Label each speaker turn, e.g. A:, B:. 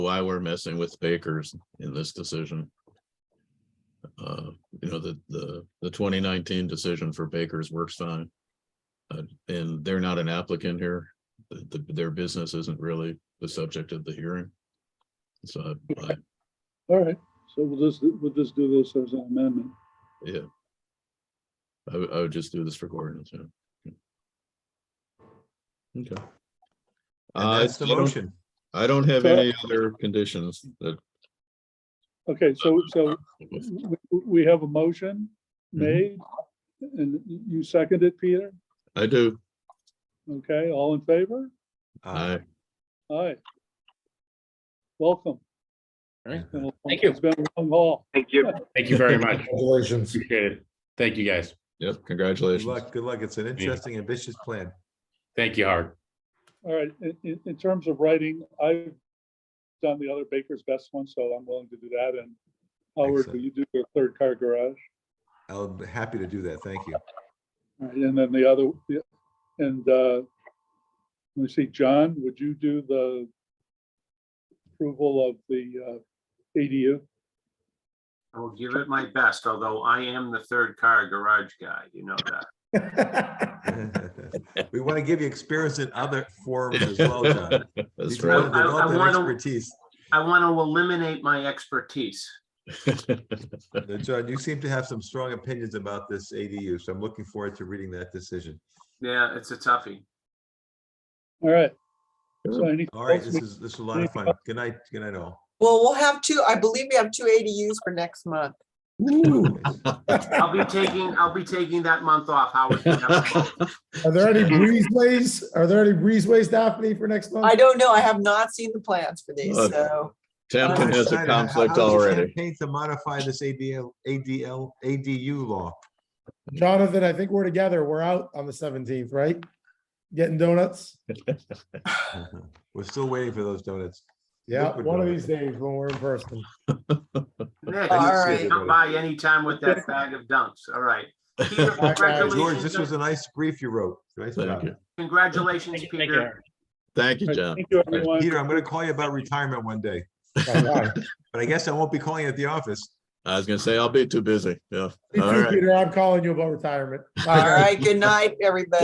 A: why we're messing with Baker's in this decision. Uh, you know, the, the, the twenty nineteen decision for Baker's works fine. Uh, and they're not an applicant here. The- the- their business isn't really the subject of the hearing. So, I,
B: All right, so we'll just, we'll just do this as an amendment.
A: yeah. I would, I would just do this for Gordon, so. Okay. Uh,
C: And that's the
A: I don't-
C: motion.
A: I don't have
B: So-
A: any other conditions that.
B: Okay, so, so we, we have a motion made and you second it, Peter?
A: I do,
B: Okay, all in favor?
C: Uh,
A: I,
B: Aye. Welcome.
D: Alright,
B: Thank
D: thank you.
B: It's been a long haul.
D: Thank you. Thank you very much.
E: Congratulations.
D: Appreciate it. Thank you, guys.
A: yep,
C: Good
A: congratulations.
C: luck, good luck. It's an interesting, ambitious plan.
D: Thank you, Howard.
B: All right, in, in, in terms of writing, I've done the other Baker's Best one, so I'm willing to do that. And Howard, will
C: Excellent.
B: you do your third car garage?
C: I'm happy to do that. Thank you.
B: All right, And then the other, the- and uh, let me see, John, would you do the approval of the uh, ADU?
F: I will give it my best, although I am the third car garage guy, you know that.
C: We want to give you experience in other forums as well, John. You
A: That's
C: develop-
A: right.
F: I- I- I
C: develop that
F: wanna-
C: Expertise.
F: I want to eliminate my expertise.
C: Uh, John, you seem to have some strong opinions about this ADU, so I'm looking forward to reading that decision.
F: Yeah, it's a toughie.
B: All right. So
A: Sure.
B: anything
C: All right,
B: else
C: this
B: we-
C: is, this is a lot of fun. Good night, good night all.
G: Well, we'll have two, I believe we have two ADUs for next month.
F: I'll be taking, I'll be taking that month off, Howard. you know.
E: Are there any breezeways? Are there any breezeways, Daphne, for next month?
G: I don't know, I have not seen the plans for these,
A: Okay.
G: so
A: Tamkin has a
C: Snyder, how-
A: conflict
C: how's your
A: already.
C: campaign To modify this ADL, ADL, ADU law.
E: Jonathan, I think we're together. We're out on the seventeenth, right? Getting donuts?
C: We're still waiting for those donuts.
E: Yeah,
C: Liquid
E: one of
C: donuts.
E: these days when we're in person.
F: Nick,
G: All
C: right.
F: come by anytime with that bag of dunks, all right. Peter,
E: guys.
C: George, this
F: congratulations
C: was
F: on-
C: a nice brief you wrote. Nice
A: Thank
C: job.
A: you.
F: Congratulations, Peter.
A: Thank you,
B: All right,
A: John.
B: Thank you, everyone.
C: Peter, I'm gonna call you about retirement one day,
E: Bye-bye.
C: but I guess I won't be calling you at the office.
A: I was gonna say, I'll be too busy. Yeah.
E: You
A: All
E: too,
A: right.
E: Peter, I'm calling you about retirement. Bye,
G: all
E: guys.
G: right, good night, everybody.